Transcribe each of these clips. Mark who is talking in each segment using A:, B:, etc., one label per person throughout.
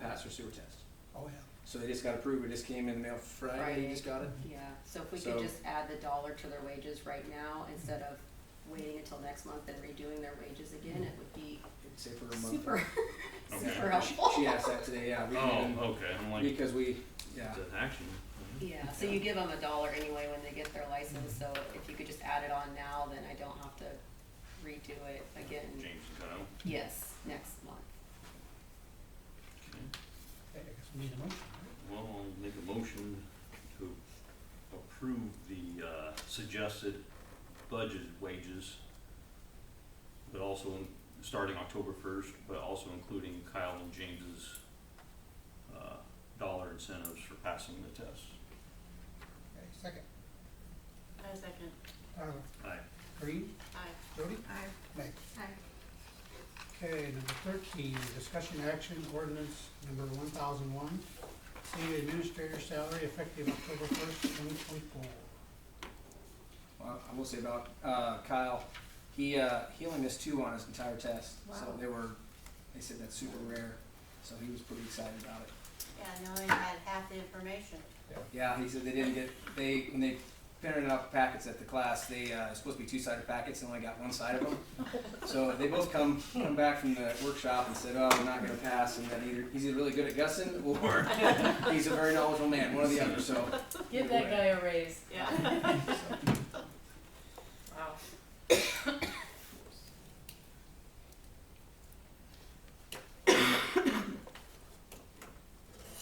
A: pass their sewer test.
B: Oh, yeah.
A: So they just got approved, it just came in the mail Friday, you just got it?
C: Yeah, so if we could
A: So-
C: just add the dollar to their wages right now, instead of waiting until next month and redoing their wages again, it would be
A: Say for a month.
C: super,
D: Okay.
C: super helpful.
A: She asked that today, yeah, we can,
D: Oh, okay, I'm like,
A: because we, yeah,
D: it's an action.
C: Yeah, so you give them a dollar anyway when they get their license, so if you could just add it on now, then I don't have to redo it again.
D: James Kyle.
C: Yes, next month.
D: Okay.
B: Okay, I guess we need a motion, right?
D: Well, I'll make a motion to approve the uh, suggested budget wages, but also in- starting October first, but also including Kyle and James's uh, dollar incentives for passing the test.
B: Okay, second.
E: I second.
B: Tyler,
D: Aye.
B: Green,
E: Aye.
B: Jody,
E: Aye.
B: Meg.
C: Aye.
B: Okay, number thirteen, discussion action ordinance number one thousand one, city administrator salary effective October first, twenty twenty-four.
A: Well, I will say about uh, Kyle, he uh, he only missed two on his entire test, so
E: Wow.
A: they were they said that's super rare, so he was pretty excited about it.
E: Yeah, no, I had half the information.
A: Yeah, he said they didn't get they when they printed out the packets at the class, they uh, it's supposed to be two sided packets and only got one side of them. so they both come come back from the workshop and said, "Oh, I'm not going to pass," and then either he's either really good at gussing or he's a very knowledgeable man, one or the other. So
F: Give that guy a raise.
E: Yeah.
F: Wow.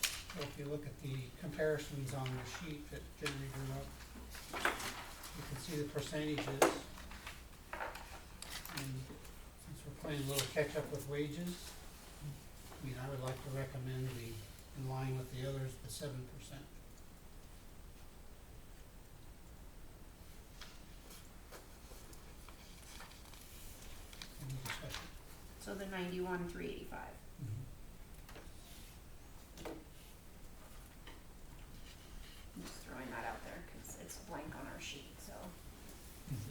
B: So if you look at the comparisons on the sheet that Jeremy drew up, you can see the percentages. And since we're playing a little catch-up with wages, I mean, I would like to recommend the, in line with the others, the seven percent. Any discussion?
E: So the ninety-one, three eighty-five. I'm just throwing that out there because it's blank on our sheet, so.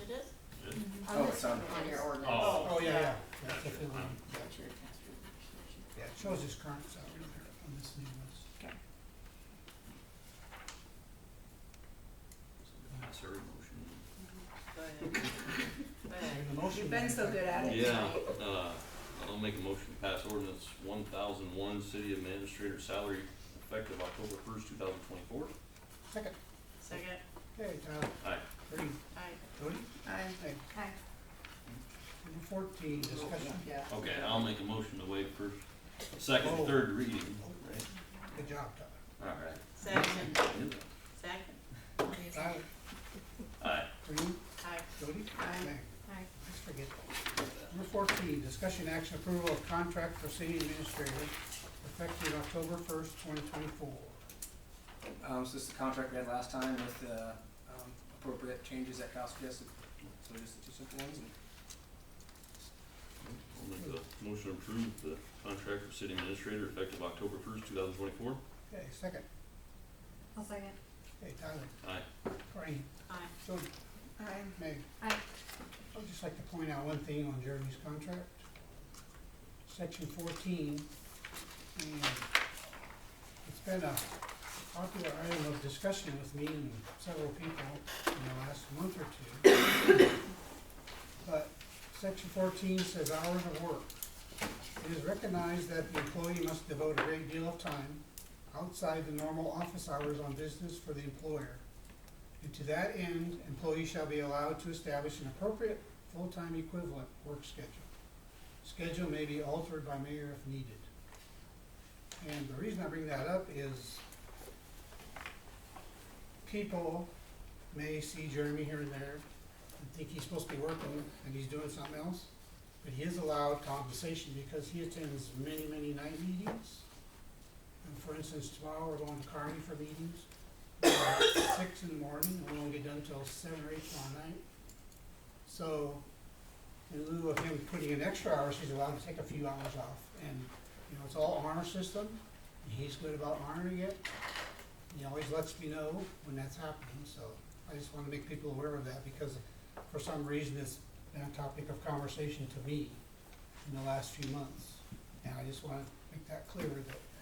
E: It is?
A: Oh, it's on-
C: On your ordinance.
D: Oh.
B: Oh, yeah, yeah, that's
D: Gotcha.
B: if it were- Yeah, it shows his current salary here on this new list.
D: Pass every motion.
E: Go ahead. Go ahead.
B: The motion
F: You've been so
B: back.
F: good at it.
D: Yeah, uh, I'll make a motion to pass ordinance one thousand one, city administrator salary effective October first, two thousand twenty-four.
B: Second,
E: Second.
B: okay, Tyler.
D: Aye.
B: Green,
E: Aye.
B: Jody,
E: Aye.
B: Meg.
C: Aye.
B: Number fourteen, discussion,
C: Yeah.
D: Okay, I'll make a motion to waive first, second, and third reading.
B: good job, Tyler.
D: All
E: Second.
D: right.
E: Second.
B: Tyler,
D: Aye.
B: Green,
E: Aye.
B: Jody,
E: Aye.
B: Meg.
E: Aye.
B: Let's forget that. Number fourteen, discussion action approval of contract for city administrator effective October first, twenty twenty-four.
A: um, so this is the contract we had last time with the um, appropriate changes that Kyle suggested. So just the two simple ones. And
D: I'll make a motion to approve the contract for city administrator effective October first, two thousand twenty-four.
B: Okay, second,
C: I'll second.
B: okay, Tyler,
D: Aye.
B: Green,
E: Aye.
B: Jody,
C: Aye.
B: Meg.
C: Aye.
B: I'd just like to point out one thing on Jeremy's contract. Section fourteen, and it's been a popular item of discussion with me and several people in the last month or two. But section fourteen says hours of work. It is recognized that the employee must devote a great deal of time outside the normal office hours on business for the employer. And to that end, employees shall be allowed to establish an appropriate full-time equivalent work schedule. Schedule may be altered by mayor if needed. And the reason I bring that up is people may see Jeremy here and there and think he's supposed to be working and he's doing something else. But he is allowed compensation because he attends many, many night meetings. And for instance, tomorrow we're going to Kearney for meetings six in the morning, and we won't get done till seven or eight tomorrow night. So, in lieu of him putting in extra hours, he's allowed to take a few hours off, and, you know, it's all honor system, and he's good about honoring it. He always lets me know when that's happening, so I just wanna make people aware of that, because for some reason, it's been a topic of conversation to me in the last few months. And I just wanna make that clear that